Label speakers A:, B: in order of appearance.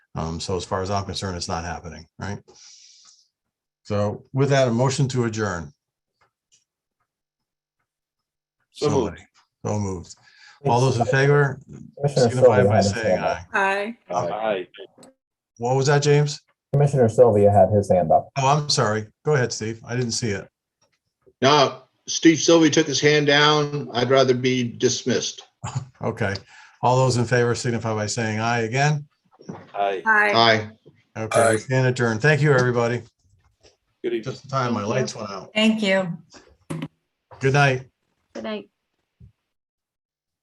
A: Um, so as far as I'm concerned, it's not happening, right? So with that, a motion to adjourn.
B: So moved.
A: Somebody. So moved. All those in favor signify by saying aye.
C: Aye.
B: Aye.
A: What was that, James?
D: Commissioner Sylvia had his hand up.
A: Oh, I'm sorry. Go ahead, Steve. I didn't see it.
E: No, Steve Sylvie took his hand down. I'd rather be dismissed.
A: Okay. All those in favor signify by saying aye again.
B: Aye.
C: Aye.
E: Aye.
A: Okay, we stand adjourned. Thank you, everybody.
B: Good evening.
A: Just in time, my lights went out.
F: Thank you.
A: Good night.
G: Good night.